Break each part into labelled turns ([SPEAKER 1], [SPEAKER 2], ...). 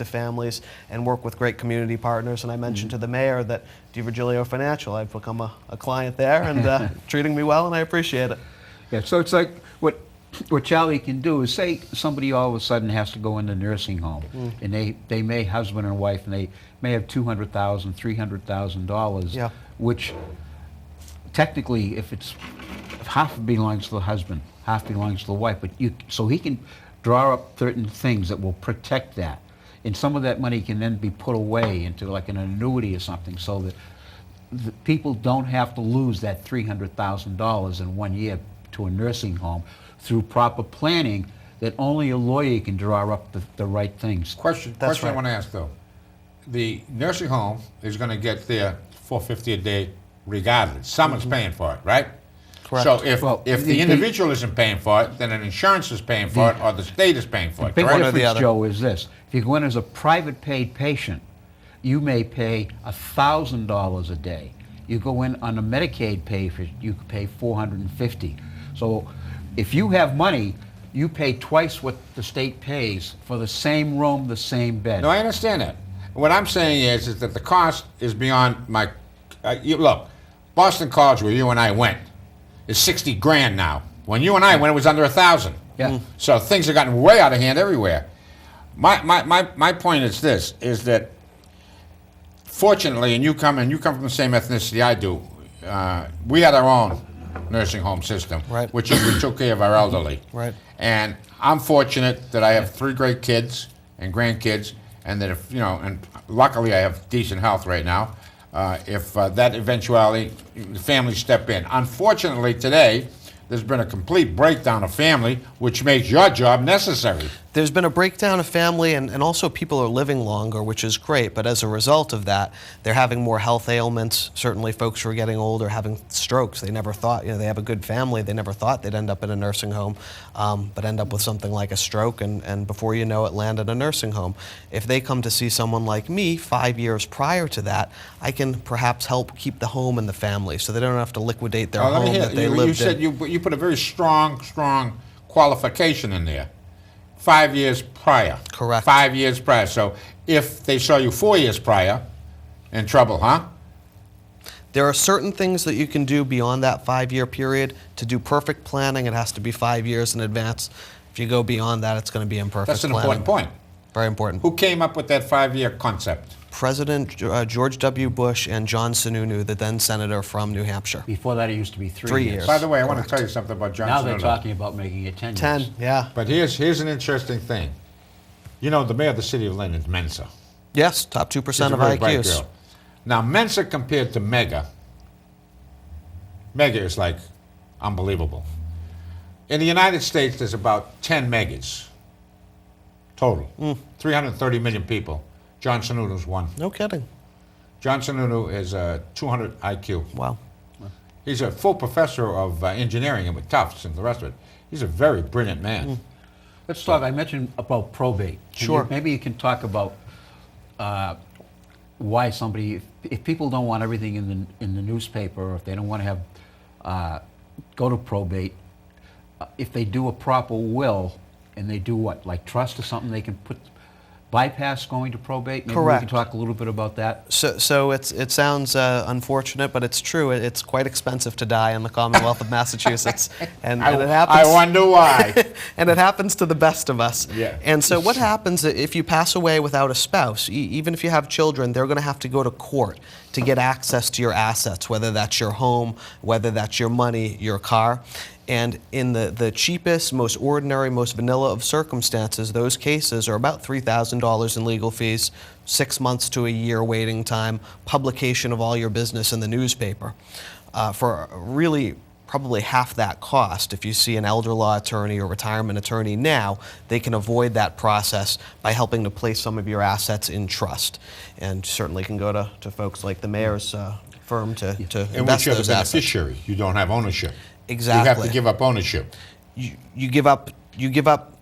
[SPEAKER 1] to families and work with great community partners. And I mentioned to the mayor that DiVirgilio Financial, I've become a, a client there and uh, treating me well, and I appreciate it.
[SPEAKER 2] Yeah, so it's like what what Charlie can do is say somebody all of a sudden has to go into nursing home, and they they may husband and wife, and they may have two hundred thousand, three hundred thousand dollars,
[SPEAKER 1] Yeah.
[SPEAKER 2] which technically, if it's if half belongs to the husband, half belongs to the wife, but you so he can draw up certain things that will protect that, and some of that money can then be put away into like an annuity or something, so that the people don't have to lose that three hundred thousand dollars in one year to a nursing home through proper planning. That only a lawyer can draw up the, the right things.
[SPEAKER 3] Question,
[SPEAKER 1] That's
[SPEAKER 3] question I
[SPEAKER 1] right.
[SPEAKER 3] want to ask though. The nursing home is going to get their 450 a day regardless. Someone's paying for it, right?
[SPEAKER 1] Correct.
[SPEAKER 3] So if,
[SPEAKER 2] Well,
[SPEAKER 3] if
[SPEAKER 2] the-
[SPEAKER 3] the
[SPEAKER 2] the-
[SPEAKER 3] individual isn't paying for it, then an insurance is paying for it or the state is paying for it,
[SPEAKER 2] Big
[SPEAKER 3] correct?
[SPEAKER 1] or the
[SPEAKER 2] difference,
[SPEAKER 1] other.
[SPEAKER 2] Joe, is this. If you go in as a private paid patient, you may pay thousand dollars a day. You go in on a Medicaid pay for, you could pay four hundred and fifty. So if you have money, you pay twice what the state pays for the same room, the same bed.
[SPEAKER 3] No, I understand that. What I'm saying is, is that the cost is beyond my. Uh, you, look, Boston College, where you and I went, is 60 grand now. When you and I went, it was under a thousand.
[SPEAKER 2] Yeah. Mm.
[SPEAKER 3] So things have gotten way out of hand everywhere. My, my, my, my point is this: is that fortunately, and you come and you come from the same ethnicity I do. Uh, we had our own nursing home system,
[SPEAKER 1] Right.
[SPEAKER 3] which is we took care of our elderly.
[SPEAKER 1] Right.
[SPEAKER 3] And I'm fortunate that I have three great kids and grandkids, and that if you know, and luckily I have decent health right now. Uh, if uh, that eventuality, the family step in. Unfortunately, today there's been a complete breakdown of family, which makes your job necessary.
[SPEAKER 1] there's been a breakdown of family and, and also people are living longer which is great but as a result of that they're having more health ailments certainly folks who are getting older having strokes they never thought you know they have a good family they never thought they'd end up in a nursing home um, but end up with something like a stroke and, and before you know it land in a nursing home if they come to see someone like me five years prior to that i can perhaps help keep the home and the family so they don't have to liquidate their
[SPEAKER 3] Now, let me
[SPEAKER 1] home
[SPEAKER 3] hear-
[SPEAKER 1] that they
[SPEAKER 3] you,
[SPEAKER 1] lived
[SPEAKER 3] you said
[SPEAKER 1] in
[SPEAKER 3] you you put a very strong, strong qualification in there. Five years prior.
[SPEAKER 1] Correct.
[SPEAKER 3] Five years prior. So if they saw you four years prior, in trouble, huh?
[SPEAKER 1] There are certain things that you can do beyond that five year period. To do perfect planning, it has to be five years in advance. If you go beyond that, it's going to be imperfect
[SPEAKER 3] That's an
[SPEAKER 1] planning.
[SPEAKER 3] important point.
[SPEAKER 1] Very important.
[SPEAKER 3] Who came up with that five-year concept?
[SPEAKER 1] President uh, George W. Bush and John Sununu, the then senator from New Hampshire.
[SPEAKER 2] Before that, it used to be three,
[SPEAKER 1] Three years.
[SPEAKER 3] By the way, I want to tell you something about John
[SPEAKER 2] Now they're
[SPEAKER 3] Sununu.
[SPEAKER 2] talking about making it ten.
[SPEAKER 1] Ten,
[SPEAKER 2] years.
[SPEAKER 1] yeah.
[SPEAKER 3] But here's here's an interesting thing. You know, the mayor of the city of Lyndon's Mensa.
[SPEAKER 1] Yes, top 2%
[SPEAKER 3] She's a
[SPEAKER 1] of
[SPEAKER 3] very bright
[SPEAKER 1] IQs.
[SPEAKER 3] girl. Now, Mensa compared to Mega, Mega is like unbelievable. In the United States, there's about 10 megas total,
[SPEAKER 1] Mm.
[SPEAKER 3] 330 million people. John Sununu's one.
[SPEAKER 1] No kidding.
[SPEAKER 3] John Sununu is uh, a 200 IQ.
[SPEAKER 1] Wow.
[SPEAKER 3] He's a full professor of uh, engineering and with Tufts and the rest of it. He's a very brilliant man.
[SPEAKER 1] Mm.
[SPEAKER 2] Let's talk. I mentioned about probate. Can you-
[SPEAKER 1] Sure.
[SPEAKER 2] maybe you can talk about uh, why somebody, if, if people don't want everything in the in the newspaper, or if they don't want to have uh, go to probate, uh, if they do a proper will and they do what, like trust or something, they can put bypass going to probate. Maybe We
[SPEAKER 1] Correct.
[SPEAKER 2] can talk a little bit about that.
[SPEAKER 1] So, so it's, it sounds uh, unfortunate, but it's true. It, it's quite expensive to die in the Commonwealth of Massachusetts. And,
[SPEAKER 3] I,
[SPEAKER 1] and it happens.
[SPEAKER 3] I wonder why.
[SPEAKER 1] and it happens to the best of us.
[SPEAKER 3] Yeah.
[SPEAKER 1] And so, what happens i- if you pass away without a spouse? E- even if you have children, they're going to have to go to court to get access to your assets, whether that's your home, whether that's your money, your car. And in the, the cheapest, most ordinary, most vanilla of circumstances, those cases are about $3,000 in legal fees, six months to a year waiting time, publication of all your business in the newspaper. Uh, for really probably half that cost. If you see an elder law attorney or retirement attorney now, they can avoid that process by helping to place some of your assets in trust. And certainly can go to, to folks like the mayor's uh, firm to, to
[SPEAKER 3] And we
[SPEAKER 1] invest
[SPEAKER 3] show the
[SPEAKER 1] those assets.
[SPEAKER 3] beneficiary. You don't have ownership. You have
[SPEAKER 1] Exactly.
[SPEAKER 3] to give up ownership.
[SPEAKER 1] You, you give up, you give up,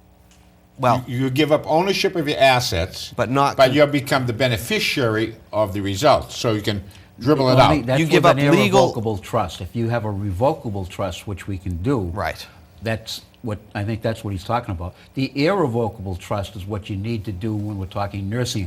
[SPEAKER 1] well,
[SPEAKER 3] You give up ownership of your assets,
[SPEAKER 1] Oh. But not-
[SPEAKER 3] But you become the beneficiary of the results, so you can dribble it
[SPEAKER 2] Only-
[SPEAKER 3] out.
[SPEAKER 2] that's
[SPEAKER 1] You give
[SPEAKER 2] with
[SPEAKER 1] up
[SPEAKER 2] an
[SPEAKER 1] legal-
[SPEAKER 2] irrevocable trust. If you have a revocable trust, which we can do,
[SPEAKER 1] Right.
[SPEAKER 2] That's what I think that's what he's talking about. The irrevocable trust is what you need to do when we're talking nursing